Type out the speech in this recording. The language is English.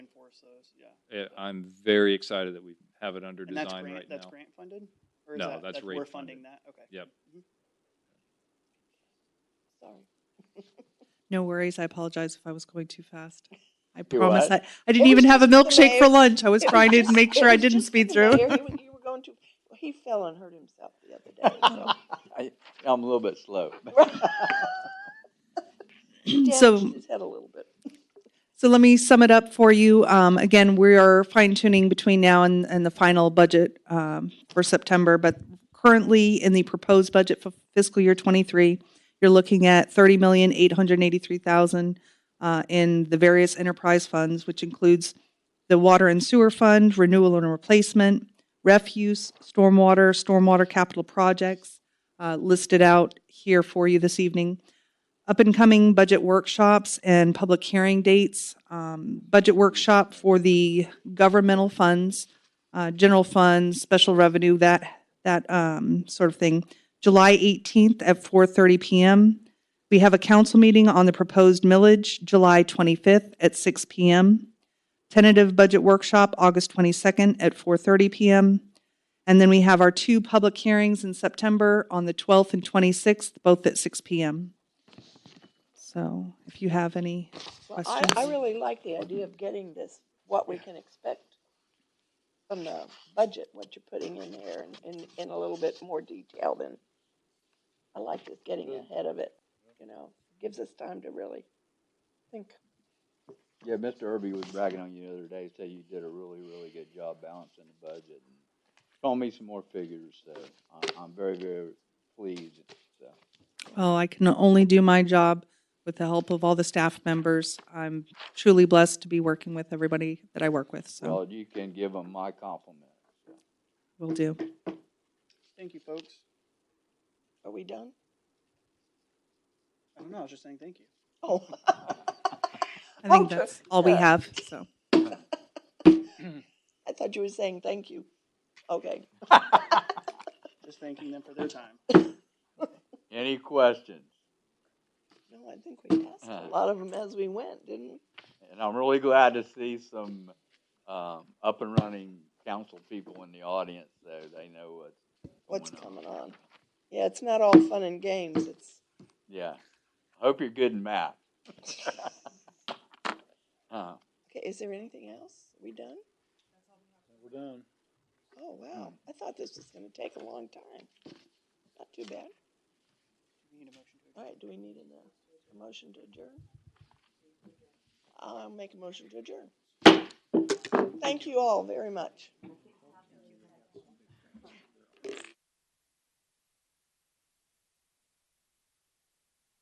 source those, yeah. Eh, I'm very excited that we have it under And that's design grant, right that's now. grant funded? Or is No, that- that's rate We're funding that, okay. Yep. Sorry. No worries. I apologize if I was going too fast. I You're promise what? I, I didn't It was even have a just the milkshake for mayor. lunch. I was trying to make sure I didn't speed through. You were going to, he fell and hurt himself the other day, so. I, I'm a little bit slow. So- Damaged his head a little bit. So let me sum it up for you. Um, again, we are fine tuning between now and, and the final budget um, for September, but currently in the proposed budget for fiscal year 23, you're looking at 30,883,000 uh, in the various enterprise funds, which includes the water and sewer fund, renewal and replacement, refuse, stormwater, stormwater capital projects uh, listed out here for you this evening up and coming budget workshops and public hearing dates. Um, budget workshop for the governmental funds, uh, general funds, special revenue, that that um, sort of thing. July 18th at 4:30 p.m. We have a council meeting on the proposed millage July 25th at 6 p.m. Tentative budget workshop August 22nd at 4:30 p.m. And then we have our two public hearings in September on the 12th and 26th, both at 6 p.m. So if you have any, Well, I, I Questions? really like the idea of getting this, what we can expect from the budget, what you're putting in there in, in, in a little bit more detail than, I like this getting ahead of it, you know, gives us time to really think. Yeah, Mr. Irby was bragging on you the other day, said you did a really, really good job balancing the budget. and Told me some more figures, so I'm, I'm very, very pleased, so. well, I can only do my job with the help of all the staff members. I'm truly blessed to be working with everybody that I work with, so Well, you can give them my compliments. we will do. Thank you, folks. Are we done? I don't know, I was just saying thank you. Oh. I think Okay. that's all we Yeah. have, so. I thought you were saying thank you. Okay. Just thanking them for their time. Any questions? No, I think we asked Uh. a lot of them as we went, didn't we? And I'm really glad to see some, um, up and running council people in the audience, so they know what's. What's going coming on? Yeah, it's not all fun and games. It's, Yeah. I Hope you're good in math. Uh, okay, is there anything else? We done? We're done. Oh, wow. I thought this was gonna take a long time. Not too bad. We need a motion to All right, do we need a, a motion to adjourn? I'll make a motion to adjourn. Thank you all very much.